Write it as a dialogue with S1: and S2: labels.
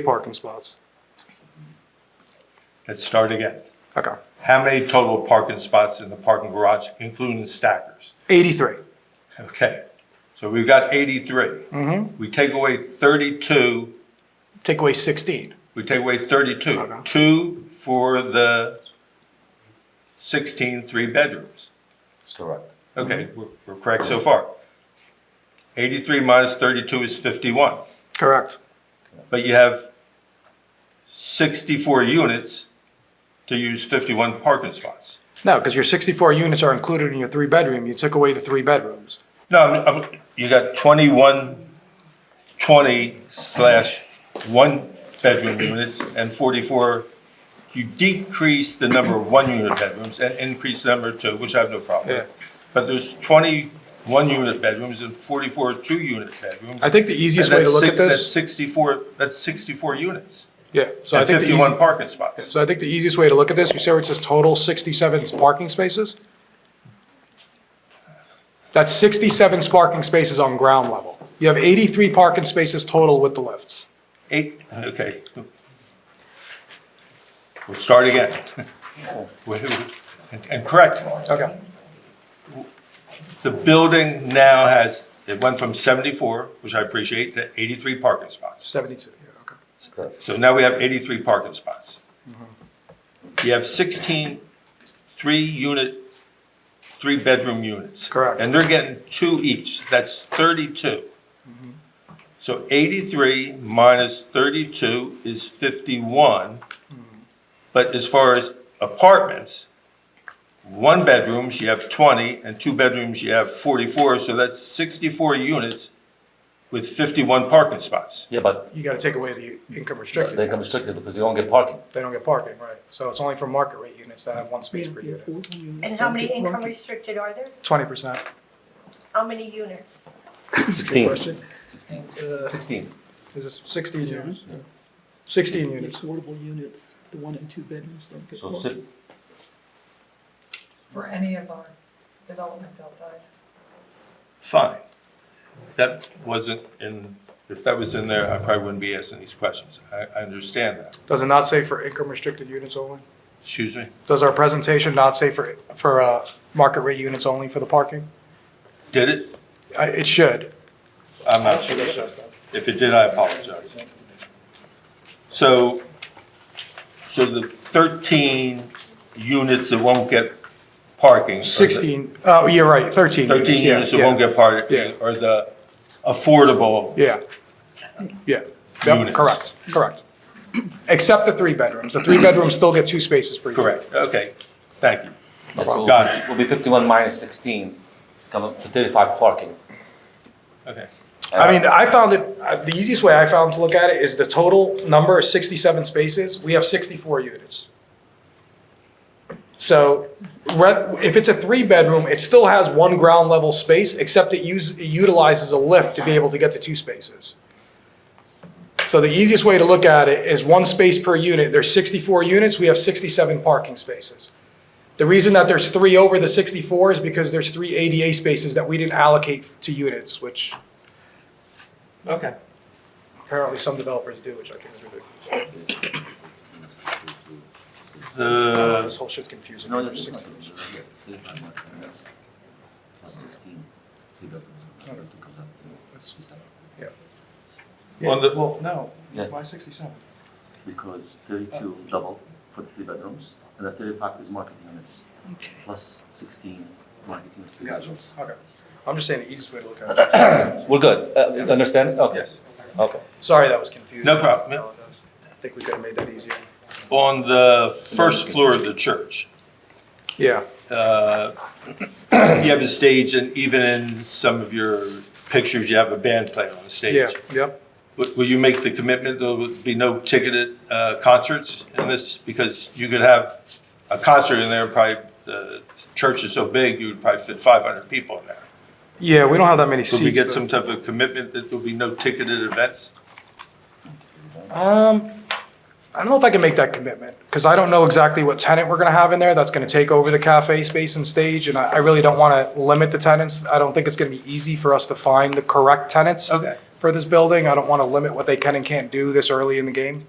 S1: parking spots.
S2: Let's start again.
S1: Okay.
S2: How many total parking spots in the parking garage, including stackers?
S1: 83.
S2: Okay, so we've got 83. We take away 32,
S1: Take away 16.
S2: we take away 32.
S1: Okay.
S2: Two for the 16 three-bedrooms.
S3: That's correct.
S2: Okay, we're- we're correct so far. 83 minus 32 is 51.
S1: Correct.
S2: But you have 64 units to use 51 parking spots.
S1: No, because your 64 units are included in your three bedroom. You took away the three bedrooms.
S2: No, I'm, I'm, you got twenty-one, twenty slash one bedroom units and forty-four. You decrease the number of one unit bedrooms and increase the number of two, which I have no problem with.
S1: Yeah.
S2: But there's twenty-one unit bedrooms and forty-four two unit bedrooms.
S1: I think the easiest way
S2: And
S1: to
S2: that's
S1: look at
S2: six- That's
S1: this.
S2: sixty-four, that's sixty-four units
S1: Yeah. So I
S2: and
S1: think the
S2: fifty-one
S1: easy,
S2: parking spots.
S1: so I think the easiest way to look at this, you say where it says total 67 parking spaces? That's 67 parking spaces on ground level. You have 83 parking spaces total with the lifts.
S2: Eight, okay. We'll start again. And- And correct, me.
S1: Okay.
S2: The building now has, it went from 74, which I appreciate, to 83 parking spots.
S1: 72. Yeah, okay.
S2: So now we have 83 parking spots. You have 16 three-unit, three-bedroom units.
S1: Correct.
S2: And they're getting two each, that's 32. So 83 minus 32 is 51. But as far as apartments, one bedrooms, you have 20, and two bedrooms, you have 44, so that's 64 units with 51 parking spots.
S3: Yeah, but
S1: You got to take away the income restricted.
S3: they come restricted because they don't get parking.
S1: They don't get parking, right? So it's only for market rate units that have one space per unit.
S4: And how many income restricted are there?
S1: Twenty percent.
S4: How many units?
S3: Sixteen.
S1: Question? Uh,
S3: Sixteen.
S1: Is this sixteen units? Sixteen
S5: The
S1: units.
S5: affordable units, the one and two bedrooms don't get
S3: So
S5: more.
S3: si-
S6: for any of our developments outside.
S2: Fine. That wasn't in, if that was in there, I probably wouldn't be asking these questions. I, I understand that.
S1: Does it not say for income restricted units only?
S2: Excuse me?
S1: Does our presentation not say for, for, uh, market rate units only for the parking?
S2: Did it?
S1: Uh, it should.
S2: I'm not sure. sir. If it did, I apologize. So, so the 13 units that won't get parking. are the-
S1: Sixteen, oh, you're right, thirteen units.
S2: 13
S1: yeah,
S2: units that won't
S1: yeah.
S2: get parking
S1: Yeah.
S2: are the affordable.
S1: Yeah, yeah. Yep,
S2: Units.
S1: correct, correct. Except the three bedrooms. The three bedrooms still get two spaces per unit.
S2: Correct. Okay. Thank you.
S3: yeah, so
S2: Got it.
S3: Will be fifty-one minus sixteen, come up to thirty-five parking.
S2: Okay.
S1: I mean, I found it, uh, the easiest way I found to look at it is the total number is 67 spaces. We have 64 units. So re- if it's a three-bedroom, it still has one ground-level space, except it use- it utilizes a lift to be able to get to two spaces. So the easiest way to look at it is one space per unit. There's 64 units, we have 67 parking spaces. The reason that there's three over the 64 is because there's three ADA spaces that we didn't allocate to units, which
S2: Okay.
S1: Apparently some developers do, which I think is ridiculous.
S2: The
S1: This whole shit's confusing.
S3: No,
S1: me.
S3: that's Sixteen. three bedrooms, and that comes up to 67.
S2: On the-
S1: well, no,
S3: Yeah.
S1: sixty-seven?
S3: Because thirty-two double for the three bedrooms, and the thirty-five is market units, plus sixteen market units, three bedrooms.
S1: Okay, I'm just saying the easiest way to look at it.
S3: We're good, uh, you understand? Okay.
S2: Yes.
S3: Okay.
S1: Sorry that was confusing.
S2: No problem.
S1: I apologize. I think we could have made that easier.
S2: on the first floor of the church,
S1: Yeah,
S2: uh, you have a stage, and even in some of your pictures, you have a band playing on the
S1: yeah,
S2: stage.
S1: yep.
S2: W- Will you make the commitment there would be no ticketed uh, concerts in this? Because you could have a concert in there, probably, the church is so big, you would probably fit 500 people in there.
S1: Yeah, we don't have that many
S2: Will we
S1: seats.
S2: get
S1: but-
S2: some type of commitment that there'll be no ticketed events?
S1: Um, I don't know if I can make that commitment, because I don't know exactly what tenant we're gonna have in there that's gonna take over the cafe space and stage, and I, I really don't wanna limit the tenants. I don't think it's gonna be easy for us to find the correct tenants.
S2: Okay.
S1: for this building. I don't want to limit what they can and can't do this early in the game.